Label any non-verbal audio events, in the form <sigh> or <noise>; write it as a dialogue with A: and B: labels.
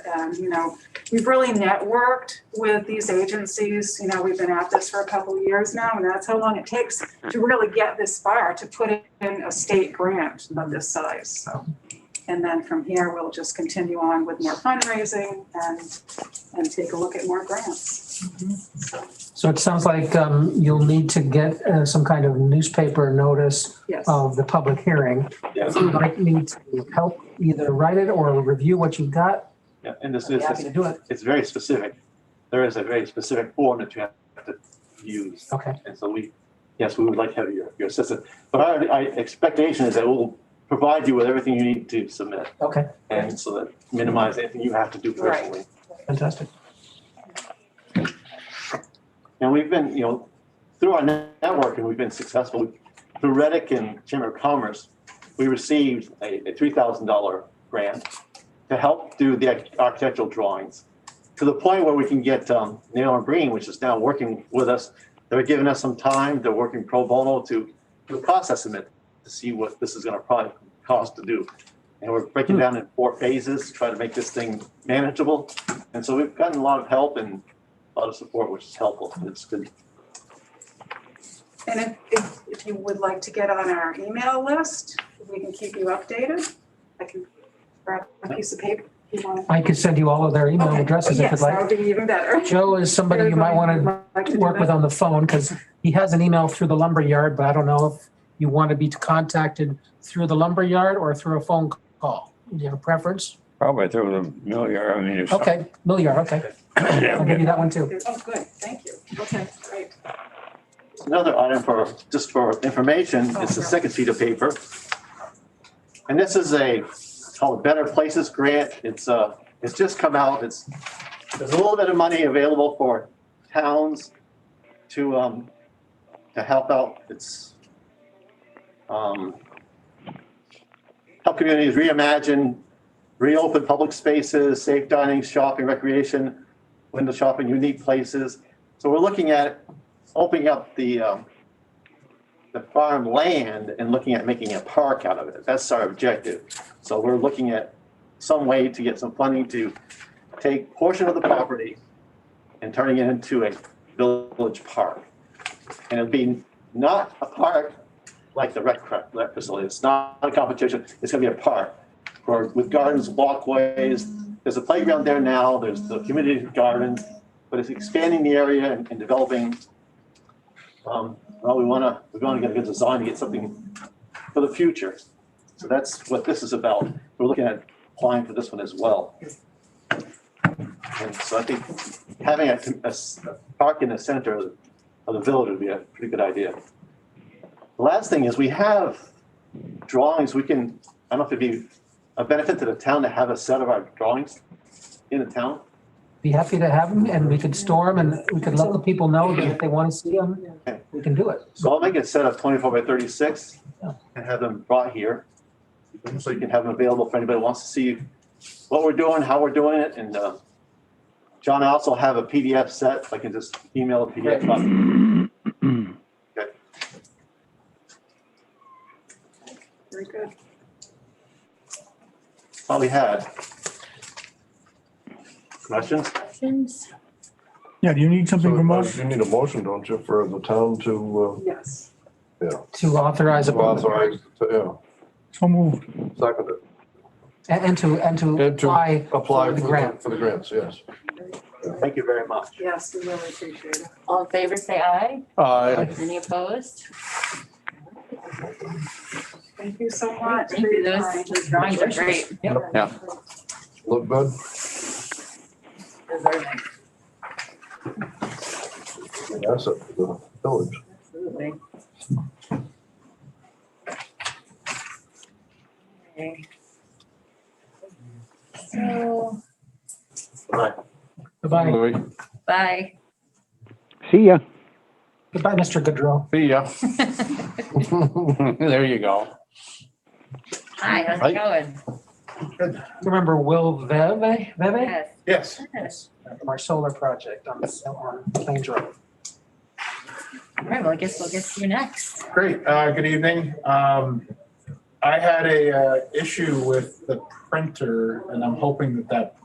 A: And, um, you know, we've really networked with these agencies. You know, we've been at this for a couple of years now, and that's how long it takes to really get this far, to put in a state grant of this size, so. And then from here, we'll just continue on with more fundraising and, and take a look at more grants. So,
B: So it sounds like um, you'll need to get uh, some kind of newspaper notice
A: yes.
B: of the public hearing.
C: Yeah.
B: So you might need to help either write it or review what you've got.
C: Yeah, and this
B: Be
C: is,
B: happy to do it.
C: it's very specific. There is a very specific form that you have to use.
B: Okay.
C: And so we, yes, we would like to have your, your assistance. But our, our expectation is that we'll provide you with everything you need to submit.
B: Okay.
C: And so that minimize anything you have to do
A: Right.
C: personally.
B: Fantastic.
C: And we've been, you know, through our net- networking, we've been successful. Through Reddick and Chamber of Commerce, we received a, a three thousand dollar grant to help do the arch- architectural drawings. To the point where we can get, um, Neil and Breen, which is now working with us, they're giving us some time, they're working pro bono to, to process them to see what this is gonna probably cost to do. And we're breaking down in four phases, trying to make this thing manageable. And so we've gotten a lot of help and a lot of support, which is helpful. It's good.
A: And if, if, if you would like to get on our email list, we can keep you updated. I can grab a piece of paper if you want.
B: I could send you all of their email
A: Okay.
B: addresses if you'd
A: Yes, that
B: like.
A: would be even better.
B: Joe is somebody you might want
A: Like to
B: to
A: do
B: work
A: that.
B: with on the phone because he has an email through the lumber yard, but I don't know if you want to be contacted through the lumber yard or through a phone call. Do you have a preference?
D: Probably through the million, I mean, if. <coughs> some-
B: Okay, mill yard, okay. I'll give you that one too.
A: Oh, good, thank you. Okay, great.
C: Another item for, just for information, is the second sheet of paper. And this is a, it's called Better Places Grant. It's, uh, it's just come out. It's, there's a little bit of money available for towns to, um, to help out. It's, um, help communities reimagine, reopen public spaces, safe dining, shopping, recreation, window shopping, unique places. So we're looking at opening up the, um, the farm land and looking at making a park out of it. That's our objective. So we're looking at some way to get some funding to take portion of the property and turning it into a village park. And it'd be not a park like the rec, cra- rec facility. It's not a competition. It's gonna be a park for, with gardens, walkways. There's a playground there now. There's the community garden. But it's expanding the area and and developing um, well, we want to, we want to get a good design to get something for the future. So that's what this is about. We're looking at applying for this one as well. And so I think having a, a s- a park in the center of of the village would be a pretty good idea. The Last thing is we have drawings, we can, I don't know if it'd be a benefit to the town to have a set of our drawings in the town.
B: Be happy to have them and we could store them and we could let the people know that if they want to see them, we can do it.
C: So I'll make a set of twenty-four by thirty-six
B: Yeah.
C: and have them brought here. So you can have them available for anybody who wants to see what we're doing, how we're doing it, and, uh, John, I also have a PDF set, I can just email a PDF. up.
A: Very good.
C: That's all we had. Questions?
E: Questions?
F: Yeah, do you need something
G: So,
F: from
G: uh,
F: us?
G: You need a motion, don't you, for the town to
A: Yes.
B: To authorize
G: uh,
B: a public
G: authorize, to,
F: So moved.
G: yeah, second it,
B: And and to, and to
G: And to-
B: apply,
G: apply
B: For the
G: for the,
B: grant.
G: for the grants, yes.
C: Thank you very much.
A: Yes, we really appreciate it.
E: All in favor, say aye.
G: Aye.
E: Any opposed?
A: Thank you so much.
E: Thank you. Those those drawings are great.
A: Yeah.
G: Look good?
E: Those are nice.
G: That's it, for uh, the village.
E: Absolutely. Okay. So,
C: Bye.
B: goodbye,
E: bye. <laughs>
D: See ya.
B: goodbye, Mr. Goodrow.
D: See ya. <laughs> There you go.
E: Hi, how's it going?
B: Remember Will Veve, Veve
E: Yes.
C: Yes.
E: yes.
B: from our solar project on, on Plains Road.
E: All right, well, I guess we'll get to you next.
H: Great, uh, good evening. Um, I had a, uh, issue with the printer and I'm hoping that that